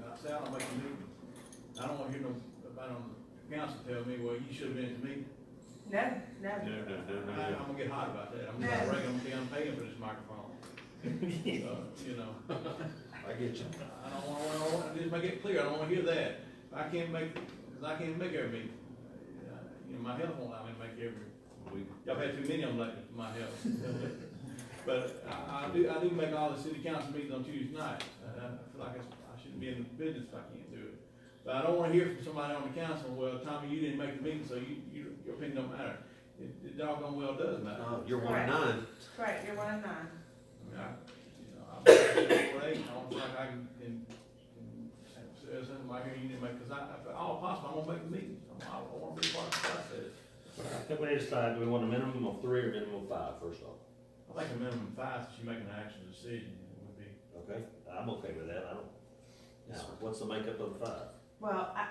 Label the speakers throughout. Speaker 1: out, I'll make a meeting. I don't want to hear no, about on the council tell me, well, you should have been to me.
Speaker 2: No, no.
Speaker 3: No, no, no, no,
Speaker 1: I, I'm
Speaker 3: no.
Speaker 1: gonna get hot about that, I'm
Speaker 2: No.
Speaker 1: not ready, I'm gonna be, I'm paying for this microphone. Uh, You know,
Speaker 3: I get you.
Speaker 1: I don't want, I don't want, just make it clear, I don't want to hear that. I can't make, 'cause I can't make every meeting. Uh, You know, my health won't allow me to make every
Speaker 3: We,
Speaker 1: Y'all had too many of them lately for my health. But I, I do, I do make all the city council meetings on Tuesday nights. Uh, I feel like I, I shouldn't be in the business if I can't do it. But I don't wanna hear from somebody on the council, well, Tommy, you didn't make the meeting, so you, you, your opinion don't matter. It, it doggone well does matter.
Speaker 3: uh, you're one of nine.
Speaker 2: Correct, you're one of nine.
Speaker 1: I mean, I, you know, I'm four eight, I don't feel like I can, can, can say something like, "Hey, you didn't make, cause I, if at all possible, I'm gonna make the meeting. I'm, I I wanna be part of the process.
Speaker 4: I think we need to decide, do we want a minimum of three or minimum of five, first off?
Speaker 1: I think a minimum five, since you're making an actual decision, would be
Speaker 4: Okay, I'm okay with that, I don't. Now, what's the makeup of the five?
Speaker 2: Well, I,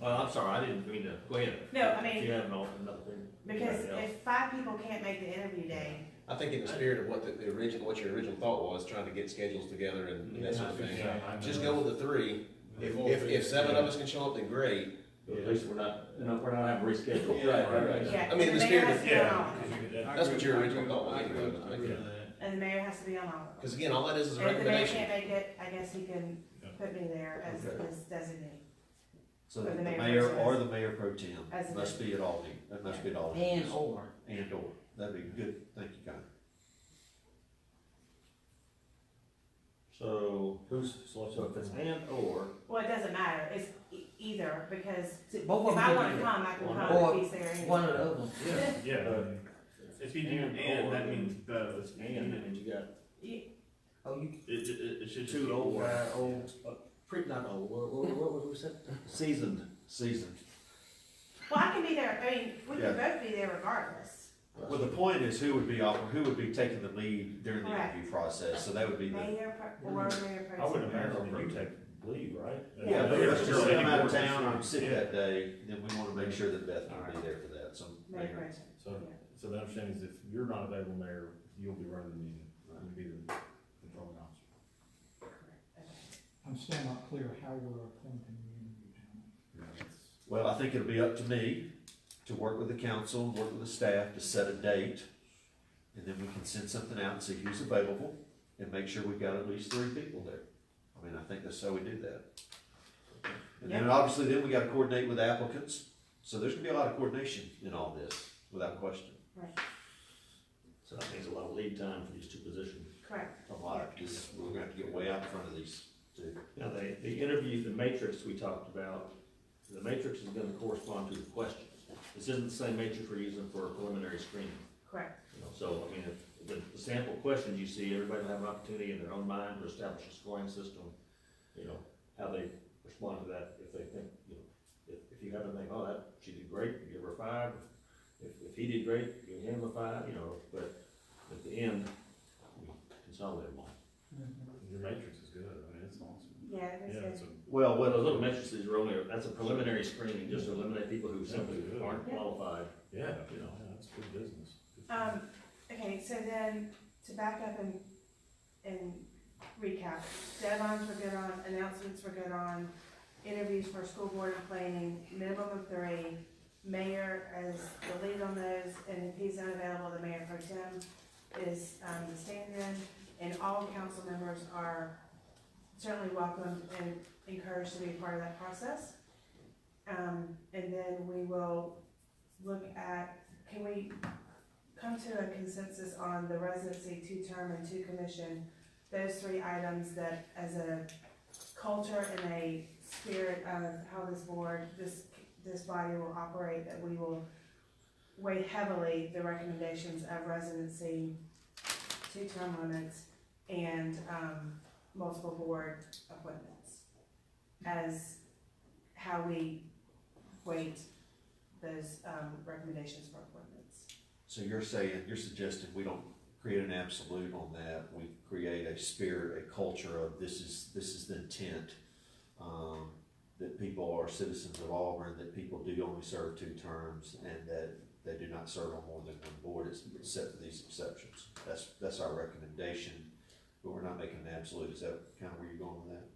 Speaker 4: Well, I'm sorry, I didn't mean to, go ahead.
Speaker 2: No, I mean-
Speaker 4: If you have an al- another thing.
Speaker 2: because
Speaker 4: Yeah.
Speaker 2: if five people can't make the interview day,
Speaker 5: I think in the spirit of what the, the original, what your original thought was, trying to get schedules together and that sort of thing. Just go with the three. If, if, if seven of us can show up, then great.
Speaker 4: At least we're not, you know, we're not having rescheduled.
Speaker 1: Yeah, right, right.
Speaker 2: yeah.
Speaker 5: I mean,
Speaker 2: and mayor
Speaker 5: the spirit
Speaker 2: has
Speaker 5: of-
Speaker 2: to be on all of them.
Speaker 1: That's
Speaker 5: what your original thought was,
Speaker 1: I agree,
Speaker 5: anyway,
Speaker 1: I agree with that.
Speaker 2: And the mayor has to be on all of them.
Speaker 5: Because again, all that is is a
Speaker 2: And if the mayor
Speaker 5: recommendation.
Speaker 2: can't make it, I guess he can put me there as,
Speaker 4: Okay.
Speaker 2: as designee.
Speaker 3: So
Speaker 2: For the
Speaker 3: the
Speaker 2: mayor
Speaker 3: mayor
Speaker 2: pro tem.
Speaker 3: or the mayor pro tem
Speaker 2: As a-
Speaker 3: must be at all, the- that must be at all. the-
Speaker 6: And or.
Speaker 3: And or, that'd be good, thank you, Connor.
Speaker 4: So, who's, so if it's and or,
Speaker 2: Well, it doesn't matter, it's e- either, because
Speaker 6: See, both
Speaker 5: Oh,
Speaker 2: if
Speaker 6: of
Speaker 2: I
Speaker 6: them.
Speaker 2: wanna
Speaker 6: can do
Speaker 2: come, I can
Speaker 4: One
Speaker 2: come
Speaker 6: or-
Speaker 2: if he's there
Speaker 6: it.
Speaker 2: anyway.
Speaker 6: One or the other.
Speaker 7: Yeah,
Speaker 4: Uh,
Speaker 7: if you do and, that means both.
Speaker 4: it's and, and you got
Speaker 6: Oh, you,
Speaker 7: It, it, it should just be
Speaker 4: two old,
Speaker 7: one.
Speaker 4: guy, old, uh, pre, not old, what, what, what what was that?
Speaker 3: Seasoned, seasoned.
Speaker 2: Well, I can be there, I mean, we can both be there regardless.
Speaker 3: Well, the point is who would be off, who would be taking the lead during the interview process, so that would be the.
Speaker 2: Mayor pro- or mayor pro
Speaker 7: I would
Speaker 2: tem.
Speaker 7: imagine that you
Speaker 4: take leave, right?
Speaker 3: Yeah, but if it's just
Speaker 7: Yeah.
Speaker 3: I'm out of town, I'm sick
Speaker 7: Yeah.
Speaker 3: that day, then we wanna make sure that Beth will be there for that, so.
Speaker 2: Mayor pro tem.
Speaker 7: So,
Speaker 2: Yeah.
Speaker 7: so the understanding is if you're not available, mayor, you'll be running the meeting, you'll be the controlling officer.
Speaker 8: I'm still not clear how we're appointing the interview panel.
Speaker 3: Well, I think it'll be up to me to work with the council, work with the staff to set a date. And then we can send something out and see who's available and make sure we've got at least three people there. I mean, I think that's how we do that. And then obviously then we gotta coordinate with applicants, so there's gonna be a lot of coordination in all this, without question.
Speaker 2: Right,
Speaker 4: So that means a lot of lead time for these two positions.
Speaker 2: correct,
Speaker 3: A lot, this, we're gonna have to get way out in front of these two.
Speaker 4: Now, the, the interview, the matrix we talked about, the matrix is gonna correspond to the question. This isn't the same matrix we're using for preliminary screening.
Speaker 2: correct,
Speaker 4: you know. So, I mean, if the, the sample questions you see, everybody will have an opportunity in their own mind to establish a scoring system, you know, how they respond to that, if they think, you know, if, if you have to think, oh, that, she did great, you give her a five. If, if he did great, give him a five, you know, but at the end, we consolidate them all.
Speaker 7: Your matrix is good, I mean, it's awesome.
Speaker 2: yeah, that's
Speaker 7: Yeah,
Speaker 2: good.
Speaker 7: it's a,
Speaker 3: Well,
Speaker 4: Well, those
Speaker 3: what,
Speaker 4: little matrices are only, that's a preliminary screening, just to eliminate people who simply aren't qualified.
Speaker 7: yeah, you know, yeah, that's good business.
Speaker 2: Um, okay, so then, to back up and, and recap, deadlines were good on, announcements were good on, interviews for school board and planning, minimum of three, mayor as the lead on those, and if he's unavailable, the mayor pro tem is, um, the stand-in, and all council members are certainly welcomed and encouraged to be a part of that process. Um, and then we will look at, can we come to a consensus on the residency, two-term and two-commission, those three items that as a culture and a spirit of how this board, this, this body will operate, that we will weigh heavily the recommendations of residency, two-term limits, and, um, multiple board appointments as how we weight those, um, recommendations for appointments.
Speaker 3: so you're saying, you're suggesting we don't create an absolute on that, we create a spirit, a culture of this is, this is the intent. Um, that people are citizens of Auburn, that people do only serve two terms, and that they do not serve on more than one board, it's- except for these exceptions. That's, that's our recommendation, but we're not making an absolute, is that kind of where you're going with that?